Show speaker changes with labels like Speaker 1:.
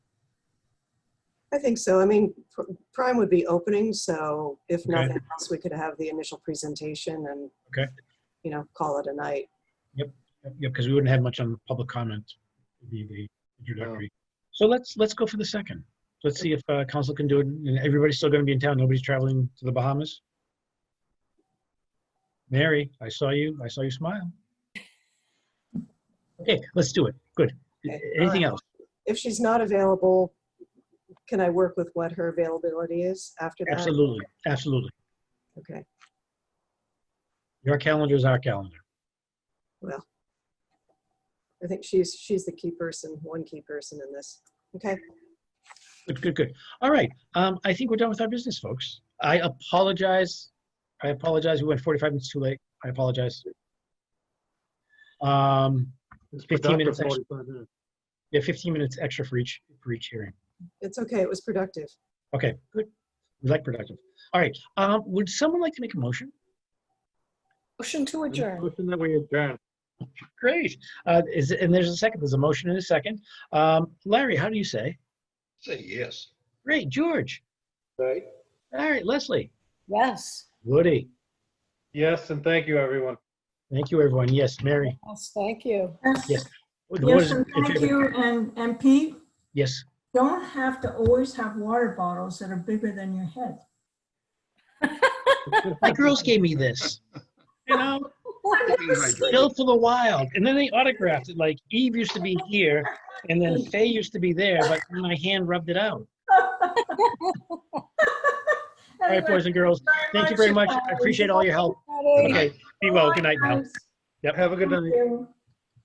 Speaker 1: I think so. I mean, pr- Prime would be opening, so if
Speaker 2: Okay.
Speaker 1: nothing else, we could have the initial presentation and,
Speaker 2: Okay.
Speaker 1: you know, call it a night.
Speaker 2: Yeah, because we wouldn't have much on public comment, It'd be the introductory. So let's, let's go for the second. Let's see if uh, council can do it, and everybody's still going to be in town, nobody's traveling to the Bahamas? Mary, I saw you, I saw you smile. Okay, let's do it, good.
Speaker 1: Okay.
Speaker 2: Anything else?
Speaker 1: If she's not available, can I work with what her availability is after that?
Speaker 2: Absolutely, absolutely.
Speaker 1: Okay,
Speaker 2: Your calendar is our calendar.
Speaker 1: I think she's, she's the key person, one key person in this. Okay,
Speaker 2: Good, good, good. All right. Um, I think we're done with our business, folks. I apologize. I apologize. We went 45 minutes too late. I apologize. Um,
Speaker 3: It's
Speaker 2: 15 minutes
Speaker 3: productive, 45 minutes.
Speaker 2: yeah, 15 minutes extra for each, for each hearing.
Speaker 1: it's okay, it was productive.
Speaker 2: Okay, good. We like productive. All right. Um, would someone like to make a motion?
Speaker 4: Motion to adjourn.
Speaker 3: Motion that we adjourn.
Speaker 2: Great. Uh, is, and there's a second, there's a motion and a second. Um, Larry, how do you say?
Speaker 5: Say yes.
Speaker 2: Great. George.
Speaker 3: Right.
Speaker 2: All right. Leslie.
Speaker 4: Yes.
Speaker 2: Woody.
Speaker 3: Yes, and thank you, everyone.
Speaker 2: Thank you, everyone. Yes, Mary.
Speaker 4: Yes, thank you.
Speaker 2: Yes.
Speaker 6: Yes,
Speaker 2: What
Speaker 6: yes,
Speaker 2: is-
Speaker 6: and thank you, and, and Pete,
Speaker 2: Yes.
Speaker 6: don't have to always have water bottles that are bigger than your head.
Speaker 2: My girls gave me this. You know? Bill for the Wild. And then they autographed it. Like Eve used to be here, and then Faye used to be there, but my hand rubbed it out. All right, boys and girls, thank you very much. I appreciate all your help. Okay, be well. Good night now. Yep.
Speaker 3: Have a good night.
Speaker 6: Thank you.